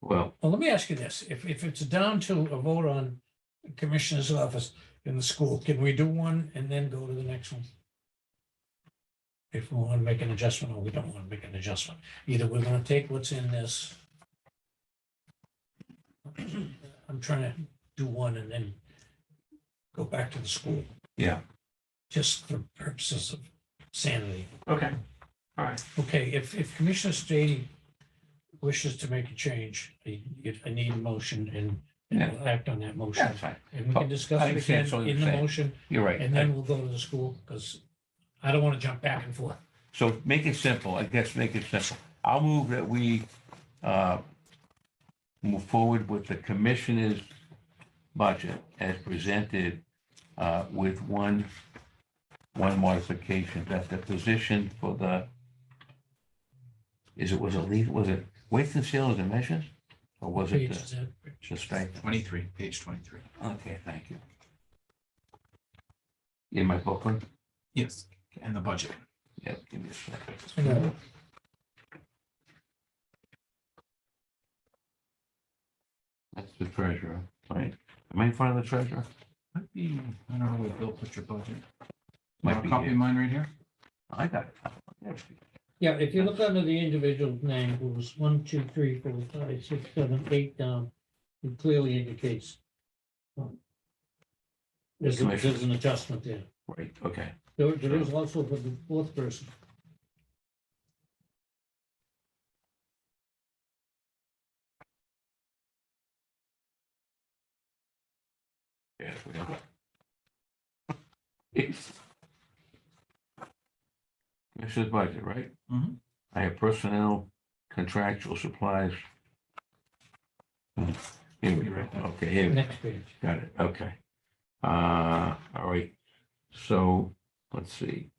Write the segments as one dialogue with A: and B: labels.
A: Well,
B: Well, let me ask you this, if, if it's down to a vote on commissioner's office in the school, can we do one and then go to the next one? If we want to make an adjustment or we don't want to make an adjustment, either we're going to take what's in this. I'm trying to do one and then go back to the school,
A: yeah,
B: just for purposes of sanity.
C: Okay, all right.
B: Okay, if, if Commissioner Stady wishes to make a change, I, I need a motion and- and we'll act on that
A: yeah,
B: motion.
A: that's fine.
B: And we can discuss
A: I
B: it
A: understand,
B: again
A: so
B: in the
A: understand.
B: motion,
A: You're right.
B: and then we'll go to the school, because I don't want to jump back and forth.
A: So make it simple, I guess, make it simple. I'll move that we uh, move forward with the commissioner's budget as presented uh, with one, one modification, that the position for the, is it, was it legal, was it weights and sales and measures? Or was it
B: Page,
A: the-
B: is that-
A: the stipend?
C: Twenty-three, page twenty-three.
A: Okay, thank you. In my booklet?
C: Yes. And the budget.
A: Yep, give me a second.
B: no.
A: That's the treasurer, right? Am I in front of the treasurer?
C: Might be, I don't know where Bill put your budget.
A: Might
C: Want
A: be
C: a Copy
A: here.
C: of mine right here?
A: I got it. I got it.
B: Yeah, if you look under the individual name, it was one, two, three, four, five, six, seven, eight down, it clearly indicates. um, There's, a-
A: Commissioner.
B: there's an adjustment there.
A: Right, okay.
B: There, there is also for the fourth person.
A: Yes, we have it. It's- Commissioner's budget, right?
C: Mhm.
A: I have personnel, contractual supplies. Hmm, Here we
C: You're
A: go.
C: right there.
A: Okay, here, we go.
B: Next page.
A: got it, okay. Uh, all right, so, let's see.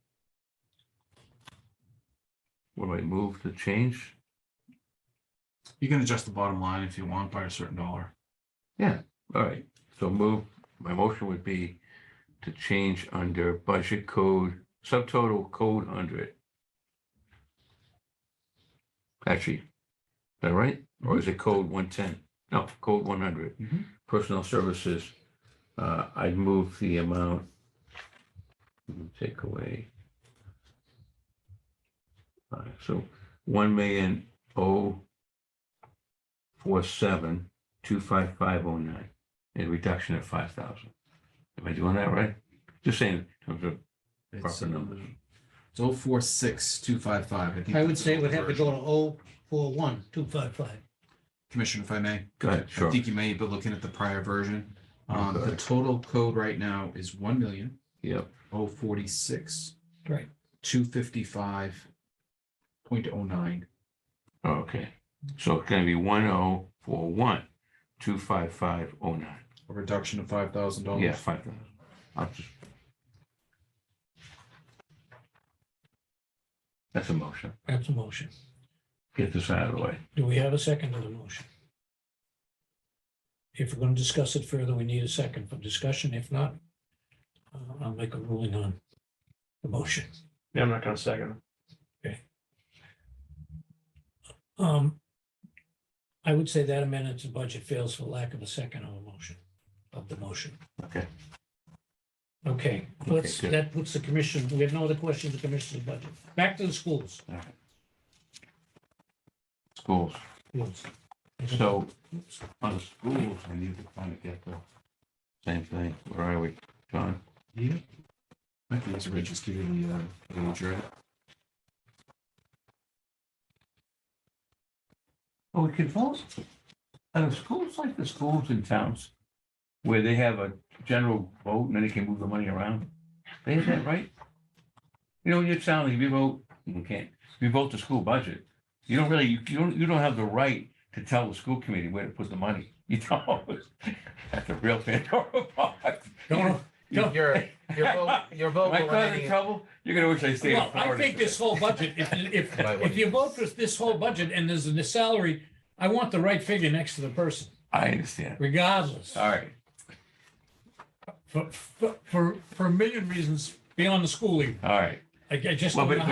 A: What do I move to change?
C: You can adjust the bottom line if you want by a certain dollar.
A: All right, so move, my motion would be to change under budget code, subtotal code hundred. Actually, is that right? Or is it code one ten? No, code one hundred.
C: Mhm.
A: Personnel services, uh, I'd move the amount. Take away. All right, so one million oh four seven two five five oh nine, a reduction of five thousand. Am I doing that right? Just saying, in terms of
C: It's uh,
A: proper numbers.
C: oh four six two five five. think
B: I would
C: that's
B: say it
C: the
B: would have to
C: version.
B: go to oh, four, one, two, five, five.
C: Commissioner, if I may.
A: Go ahead,
C: I
A: sure.
C: think you may have been looking at the prior version. Um,
A: Okay.
C: the total code right now is one million
A: Yep,
C: oh forty-six.
B: Right.
C: Two fifty-five point oh nine.
A: okay. So it's gonna be one oh four one, two five five oh nine.
C: A reduction of five thousand dollars.
A: Yeah, five thousand. I'll just. That's a motion.
B: That's a motion.
A: Get this out of the way.
B: Do we have a second to the motion? If we're going to discuss it further, we need a second for discussion. If not, uh, I'll make a ruling on the motion.
D: Yeah, I'm not gonna second.
B: Um, I would say that amendment to budget fails for lack of a second on the motion, of the motion.
A: Okay.
B: Okay, let's,
A: good.
B: that puts the commission, we have no other questions, the commission's budget. Back to the schools.
A: Schools.
B: Schools.
A: So on the schools, I need to kind of get the same thing. Where are we, John?
C: Yeah. I think it's Rich, just give you the, uh, the right?
A: Well, we could vote. Are the schools like the schools in towns where they have a general vote and then they can move the money around? Is that right? You know, in your town, if you vote, you can't, if you vote the school budget, you don't really, you don't, you don't have the right to tell the school committee where to put the money. You don't. That's a real Pandora box.
B: No, no.
C: Your, your vote, your vote.
A: Am I
C: will
A: causing
C: remain-
A: trouble? You're gonna wish I stayed. in
B: Well, I
A: Florida
B: think
A: today.
B: this whole budget, if, if,
C: Right, what
B: if you vote for this whole budget and there's a salary, I want the right figure next to the person,
A: I understand.
B: regardless.
A: All right.
B: For, for, for- for a million reasons beyond the schooling.
A: All right.
B: I I just
A: Well,
B: don't
A: but-
B: know how